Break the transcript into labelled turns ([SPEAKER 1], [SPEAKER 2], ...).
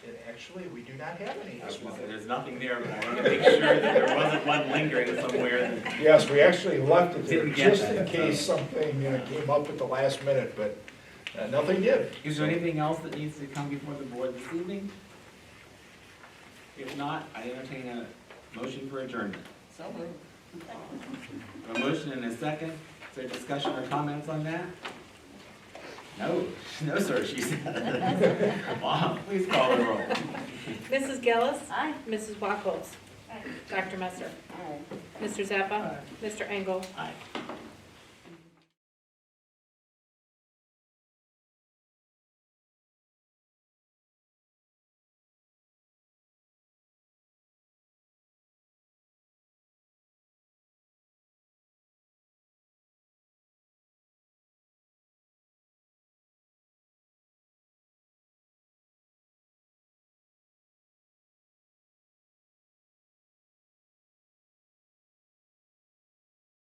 [SPEAKER 1] Actually, we do not have any this
[SPEAKER 2] I was gonna
[SPEAKER 1] month.
[SPEAKER 2] say, There's nothing there, but I wanted to make sure that there wasn't one lingering somewhere that
[SPEAKER 1] Yes, we actually left it there,
[SPEAKER 2] Didn't get
[SPEAKER 1] just in
[SPEAKER 2] that.
[SPEAKER 1] case something uh, came up at the last minute, but uh, nothing did.
[SPEAKER 2] Is there anything else that needs to come before the board this evening? If not, I entertain a motion for adjournment. A motion and a second, is there discussion or comments on that? No, no, sir, she said. Bob, please call the roll.
[SPEAKER 3] Mrs. Gillis?
[SPEAKER 4] Aye.
[SPEAKER 3] Mrs. Wackels? Dr. Messer? Mr. Zappa? Mr. Engel?
[SPEAKER 2] Aye.